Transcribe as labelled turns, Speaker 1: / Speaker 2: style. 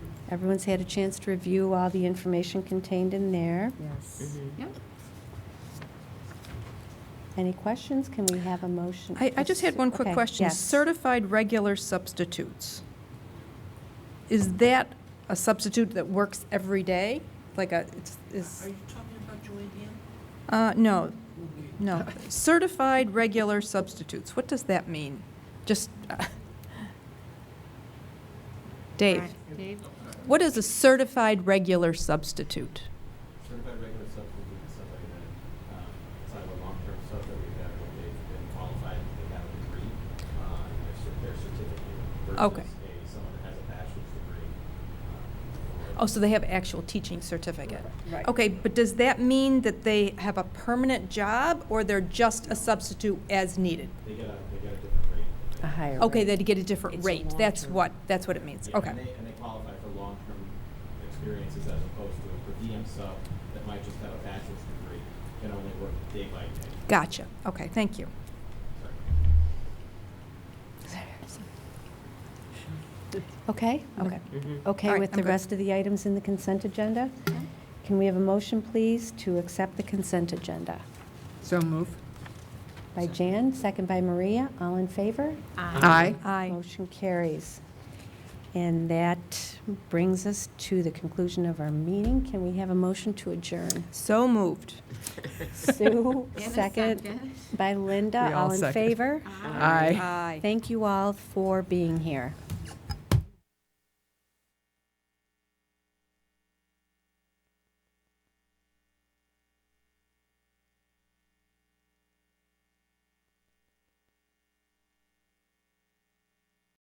Speaker 1: Everyone's had a chance to review all the information contained in there.
Speaker 2: Yes.
Speaker 3: Yep.
Speaker 1: Any questions? Can we have a motion?
Speaker 4: I, I just had one quick
Speaker 1: Okay,
Speaker 4: question.
Speaker 1: yes.
Speaker 4: Certified regular substitutes. Is that a substitute that works every day? Like a, it's,
Speaker 5: Are
Speaker 4: is,
Speaker 5: you talking about Joanne?
Speaker 4: uh, no,
Speaker 5: Okay.
Speaker 4: no. Certified regular substitutes, what does that mean? Just, uh, Dave,
Speaker 2: Mm-hmm.
Speaker 3: Dave?
Speaker 4: what is a certified regular substitute?
Speaker 6: certified regular substitute is somebody that, um, it's not a long-term sub that we've had, but they've been qualified, they have a degree, uh, and their cer- their certificate
Speaker 4: Okay.
Speaker 6: versus a, someone that has a bachelor's degree. um, or-
Speaker 4: Oh, so they have actual teaching certificate?
Speaker 2: Right.
Speaker 4: Okay, but does that mean that they have a permanent job, or they're just a substitute as needed?
Speaker 6: They get a, they get a different rate.
Speaker 2: A higher
Speaker 4: Okay, e-
Speaker 2: rate.
Speaker 4: they'd get a different
Speaker 2: It's a
Speaker 4: rate, that's
Speaker 2: long-term.
Speaker 4: what, that's what it means,
Speaker 6: Yeah,
Speaker 4: okay.
Speaker 6: And they, and they qualify for long-term experiences as opposed to a per diem sub that might just have a bachelor's degree, can only work day by day.
Speaker 4: Gotcha, okay, thank you.
Speaker 6: Sorry.
Speaker 1: Okay?
Speaker 4: Okay. All
Speaker 1: Okay
Speaker 4: right,
Speaker 1: with
Speaker 4: I'm
Speaker 1: the
Speaker 4: good.
Speaker 1: rest of the items in the consent agenda? Can we have a motion, please, to accept the consent agenda?
Speaker 2: So move.
Speaker 1: By Jan, second by Maria. All in favor?
Speaker 2: Aye.
Speaker 4: Aye.
Speaker 1: Motion carries. And that brings us to the conclusion of our meeting. Can we have a motion to adjourn?
Speaker 4: So moved.
Speaker 1: Sue,
Speaker 3: In a
Speaker 1: second
Speaker 3: second. Uh,
Speaker 1: by
Speaker 2: We
Speaker 1: Linda.
Speaker 2: all
Speaker 1: All in
Speaker 2: second.
Speaker 1: favor?
Speaker 3: Aye.
Speaker 2: Aye.
Speaker 4: Aye.
Speaker 1: Thank you all for being here.